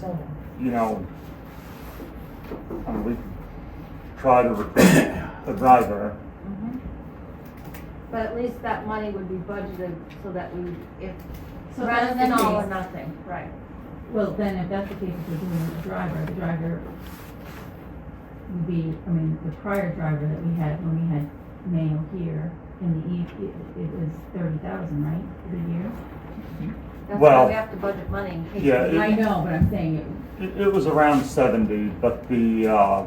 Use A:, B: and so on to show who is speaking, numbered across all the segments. A: So,
B: you know, I mean, we try to recruit a driver.
A: Mm-hmm. but at least that money would be budgeted so that we, if,
C: So
A: rather
C: that's
A: than
C: the
A: all or
C: case.
A: nothing, right?
C: Well, then if that's the case, if we're doing the driver, the driver would be, I mean, the prior driver that we had, when we had mail here in the eve, it, it was thirty thousand, right, for the year?
A: That's why
B: Well-
A: we have to budget money in case.
B: Yeah,
A: we-
B: it-
C: I know, but I'm saying, it-
B: It, it was around seventy, but the, uh,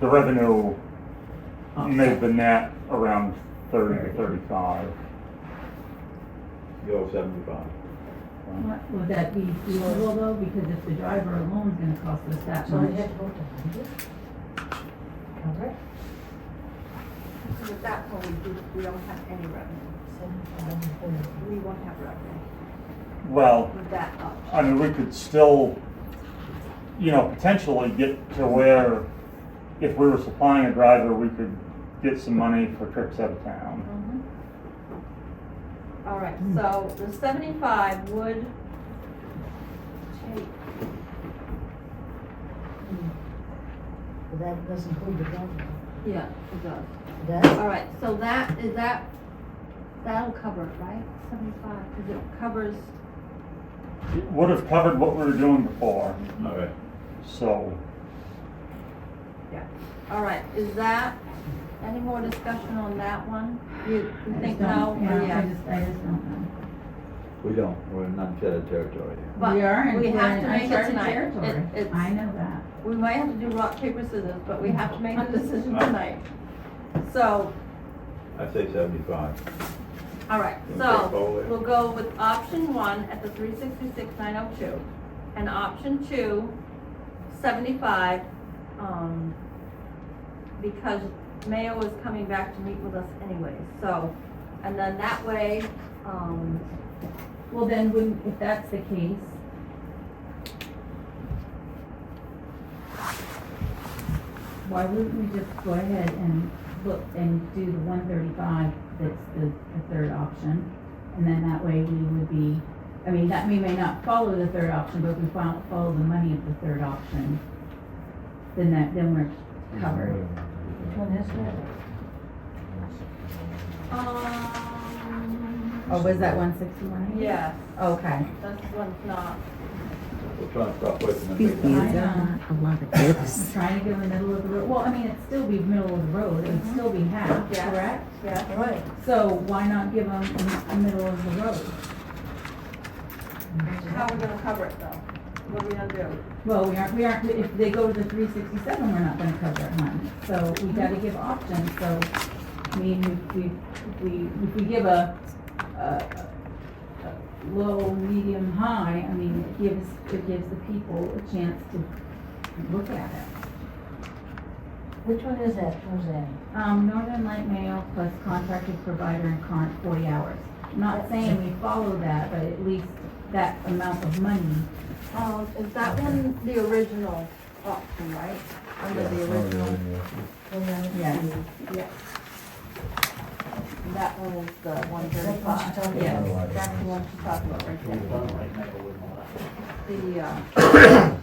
B: the revenue made the net around thirty to thirty-five.
D: Go seventy-five.
C: what- would that be feasible though, because if the driver alone's gonna cost us that
E: So we
C: much,
E: have to go to hundred? Cover it,
A: Because at that point, we, do- we don't have any revenue,
E: seventy-five, thirty.
A: we won't have revenue
B: Well,
A: with that up.
B: I mean, we could still, you know, potentially get to where if we were supplying a driver, we could get some money for trips out of town.
A: Mm-hmm. All right,
B: Hmm.
A: so the seventy-five would take,
E: But that doesn't include the government.
A: yeah, it does.
E: That,
A: All right, so that, is that, that'll cover it, right? Seventy-five, because it covers,
B: It would have covered what we were doing before,
D: All right.
B: so.
A: all right, is that, any more discussion on that one? You
C: I
A: you
C: just
A: think no or
C: don't, yeah, I
A: yes?
C: just, I just don't know.
D: We don't, we're in uncharted territory here.
A: But
C: We are in
A: we have to make
C: uncharted
A: it tonight.
C: territory.
A: It- it's-
C: I know that.
A: We might have to do rock, paper, scissors, but we have to make a decision tonight. So,
D: I say seventy-five.
A: all right,
D: Okay,
A: so
D: forward.
A: we'll go with option one at the three sixty-six nine oh two. And option two, seventy-five, um, because Mayo is coming back to meet with us anyway, so. And then that way, um,
C: Well, then, wouldn't, if that's the case, why wouldn't we just go ahead and look and do the one thirty-five that's the, the third option? And then that way we would be, I mean, that, we may not follow the third option, but if we follow, follow the money of the third option, then that, then we're covered.
E: which one is that?
A: um,
C: Oh, was that one sixty-one?
A: yes,
C: Okay.
A: this one's not,
D: We're trying to stop wasting the
F: These
D: big money.
C: Excuse me.
F: are not Uh, a lot of tips.
C: Trying to go in the middle of the road, well, I mean, it'd still be middle of the road, it'd still be half,
A: Yeah.
C: correct?
A: yeah,
E: Right,
C: So why not give them a middle of the road?
A: how are we gonna cover it though? What are we gonna do?
C: Well, we aren't, we aren't, if they go to the three sixty-seven, we're not gonna cover it, honey, so we gotta give options, so, I mean, if we, if we, if we give a, a, a low, medium, high, I mean, it gives, it gives the people a chance to look at it.
E: which one is that, Roseanne?
C: Um, Northern Light Mail plus contracted provider and current forty hours. I'm Not saying we follow that, but at least that amount of money,
A: Um, is that one the original option, right? Under the original,
C: yes.
A: yes. And that one is the one
E: That's what she's
A: thirty-five.
E: talking
C: Yeah.
E: about.
A: That's the one she's talking about right there. The, uh.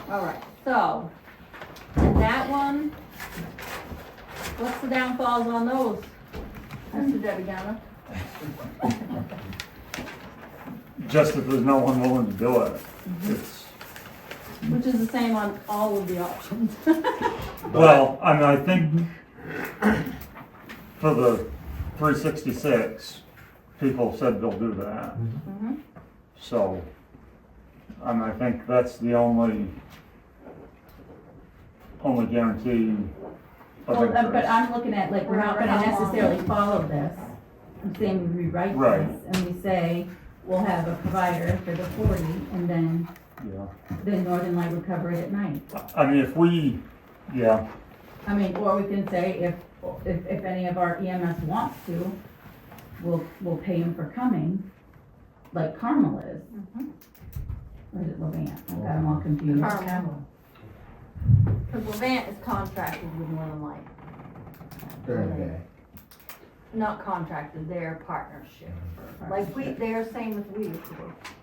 A: All right, so, and that one, what's the downfalls on those? Mr. Debbie Downer?
B: Just that there's no one willing to do it.
C: Mm-hmm.
B: It's,
A: Which is the same on all of the options. Mm-hmm.
B: well, I mean, I think for the three sixty-six, people said they'll do that.
C: Mm-hmm.
A: Mhm.
B: So, I mean, I think that's the only, only guarantee of
C: Well, uh, but
B: interest.
C: I'm looking at, like, we're not gonna necessarily follow this. I'm saying we rewrite
B: Right.
C: this, and we say, we'll have a provider for the forty, and then,
B: Yeah.
C: then Northern Light would cover it at night.
B: I mean, if we, yeah,
C: I mean, or we can say if, if, if any of our EMS wants to, we'll, we'll pay them for coming, like Carmel is. Or is it Levant? I've got them all confused.
A: Carmel.
E: Camel.
A: Cause Levant is contracted with Northern Light. Not contracted, they're partnership. Like we, they're same with we, of course.